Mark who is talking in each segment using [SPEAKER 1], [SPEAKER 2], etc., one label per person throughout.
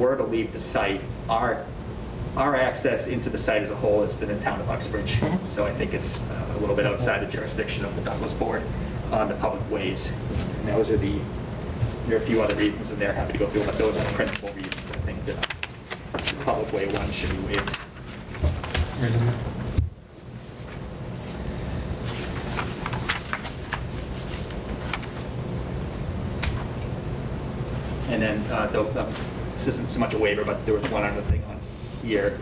[SPEAKER 1] were to leave the site, our, our access into the site as a whole is to the town of Uxbridge. So I think it's uh, a little bit outside the jurisdiction of the Douglas Board on the public ways. And those are the, there are a few other reasons in there, happy to go through, but those are the principal reasons I think that the public way one should be waived. And then, uh, though, um, this isn't so much a waiver, but there was one other thing on here,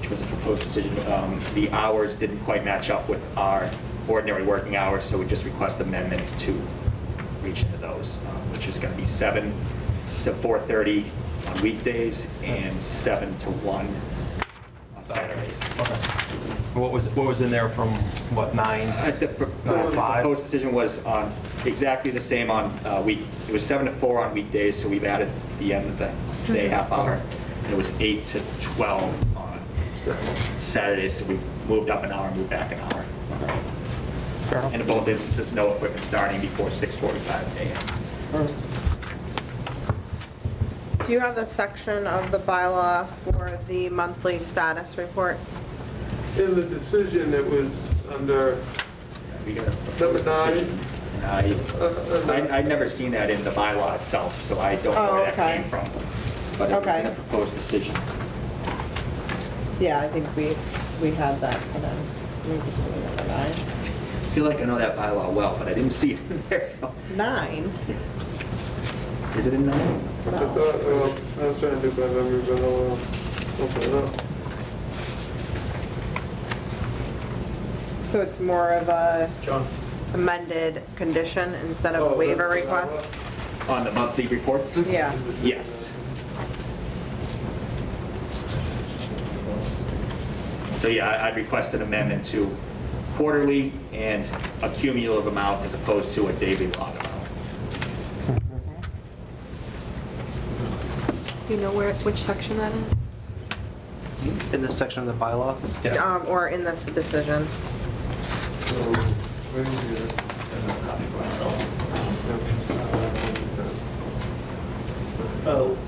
[SPEAKER 1] which was a proposed decision. Um, The hours didn't quite match up with our ordinary working hours, so we just request amendment to reach into those, uh, which is going to be 7 to 4:30 on weekdays and 7 to 1 on Saturdays.
[SPEAKER 2] What was, what was in there from, what,
[SPEAKER 1] Uh,
[SPEAKER 2] nine?
[SPEAKER 1] The pro-
[SPEAKER 2] Nine to
[SPEAKER 1] the
[SPEAKER 2] five?
[SPEAKER 1] proposed decision was on, exactly the same on uh, week, it was seven to four on weekdays, so we've added the end of the day half hour. And it was eight to 12 on Saturdays, so we moved up an hour, moved back an hour.
[SPEAKER 2] Fair enough.
[SPEAKER 1] And in both instances, no equipment starting before 6:45 AM.
[SPEAKER 3] Do you have the section of the bylaw for the monthly status reports?
[SPEAKER 4] In the decision, it was under,
[SPEAKER 1] We got a proposed
[SPEAKER 4] Number nine.
[SPEAKER 1] decision, and I- I, I'd never seen that in the bylaw itself, so I don't know
[SPEAKER 3] Oh,
[SPEAKER 1] where that
[SPEAKER 3] okay.
[SPEAKER 1] came from. But it was in
[SPEAKER 3] Okay.
[SPEAKER 1] a proposed decision.
[SPEAKER 3] Yeah, I think we, we had that, and then we just see number nine.
[SPEAKER 1] I feel like I know that bylaw well, but I didn't see it in there, so.
[SPEAKER 3] Nine?
[SPEAKER 1] Is it in nine?
[SPEAKER 4] I thought, well, I was trying to do my memory, but I'll uh, open it up.
[SPEAKER 3] So it's more of a
[SPEAKER 4] John? Oh,
[SPEAKER 3] amended condition instead of a waiver request?
[SPEAKER 1] On the monthly reports?
[SPEAKER 3] Yeah.
[SPEAKER 1] Yes. So yeah, I- I'd request an amendment to quarterly and a cumulative amount as opposed to a daily log amount.
[SPEAKER 5] Do you know where, which section that is?
[SPEAKER 6] in this section of the bylaw.
[SPEAKER 3] Um, Or in this decision?
[SPEAKER 6] O. Oh.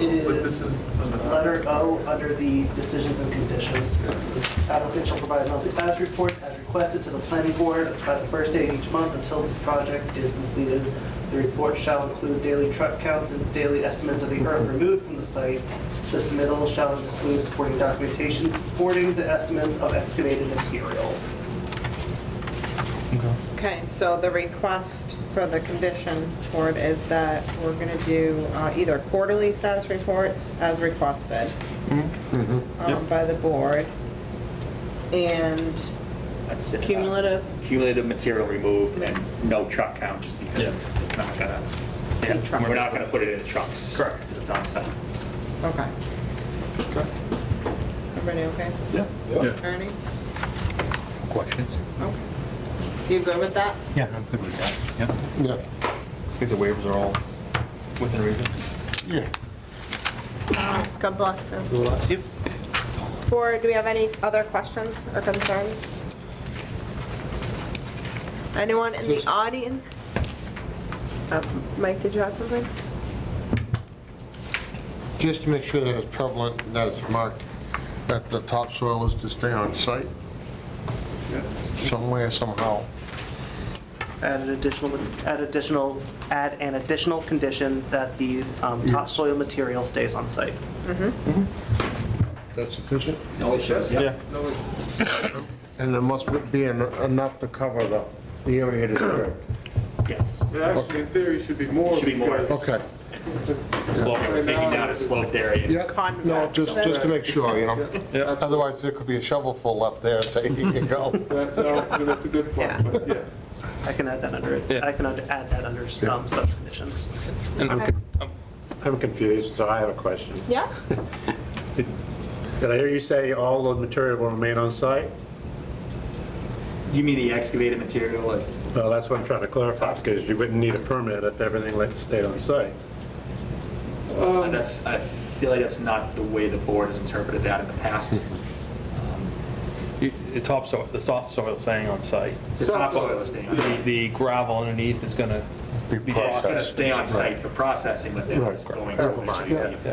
[SPEAKER 6] It
[SPEAKER 4] But this is
[SPEAKER 6] is
[SPEAKER 4] under-
[SPEAKER 6] letter O under the decisions and conditions. Applicant shall provide monthly status report as requested to the planning board by the first day of each month until the project is completed. The report shall include daily truck counts and daily estimates of the earth removed from the site. The submittal shall include supporting documentation supporting the estimates of excavated material.
[SPEAKER 3] Okay, so the request for the condition board is that we're going to do uh, either quarterly status reports as requested
[SPEAKER 7] Mm-hmm.
[SPEAKER 3] um, by the board and
[SPEAKER 1] That's it.
[SPEAKER 3] cumulative,
[SPEAKER 1] Cumulative material removed and no truck count, just because it's it's not gonna,
[SPEAKER 3] Any truck.
[SPEAKER 1] we're not gonna put it in the trucks. Correct. It's on site.
[SPEAKER 3] okay. Everybody okay?
[SPEAKER 7] Yeah.
[SPEAKER 3] Ernie?
[SPEAKER 7] Questions?
[SPEAKER 3] Okay. You good with that?
[SPEAKER 2] Yeah, I'm good with that, yeah.
[SPEAKER 7] Yeah.
[SPEAKER 2] I think the waivers are all within reason.
[SPEAKER 7] Yeah.
[SPEAKER 3] God bless them. Or do we have any other questions or concerns? Anyone in the audience? Uh, Mike, did you have something?
[SPEAKER 7] Just to make sure that it's prevalent, that it's marked, that the topsoil is to stay on site somewhere, somehow.
[SPEAKER 6] Add an additional, add additional, add an additional condition that the um, topsoil material stays on site.
[SPEAKER 7] That's sufficient?
[SPEAKER 1] No issues, yeah.
[SPEAKER 7] And there must be en- enough to cover the, the area disturbed.
[SPEAKER 1] Yes.
[SPEAKER 4] It actually, in theory, should be more.
[SPEAKER 1] Should be more.
[SPEAKER 4] because-
[SPEAKER 7] Okay.
[SPEAKER 1] Slope, we're taking down a sloped area.
[SPEAKER 7] Yeah, no, just, just to make sure, you know.
[SPEAKER 4] Yeah, absolutely.
[SPEAKER 7] Otherwise, there could be a shovelful left there, and say, here you go.
[SPEAKER 4] That- that- That's a good point, but yes.
[SPEAKER 6] I can add that under, it. I can add add that under um, such conditions.
[SPEAKER 3] Okay.
[SPEAKER 8] I'm confused, so I have a question.
[SPEAKER 3] Yeah?
[SPEAKER 8] Did I hear you say all the material will remain on site?
[SPEAKER 1] You mean the excavated material is
[SPEAKER 8] Well, that's what I'm trying to clarify, because you wouldn't need a permit if everything like stayed on site.
[SPEAKER 1] Uh, That's, I feel like that's not the way the board has interpreted that in the past. Um,
[SPEAKER 2] You- the topsoil, the topsoil staying on site.
[SPEAKER 1] The topsoil is staying on
[SPEAKER 2] The-
[SPEAKER 1] site.
[SPEAKER 2] The gravel underneath is going to
[SPEAKER 7] Be
[SPEAKER 1] It's going to
[SPEAKER 7] processed.
[SPEAKER 1] stay on site for processing, but then it's going to.
[SPEAKER 7] Right.
[SPEAKER 1] eventually be-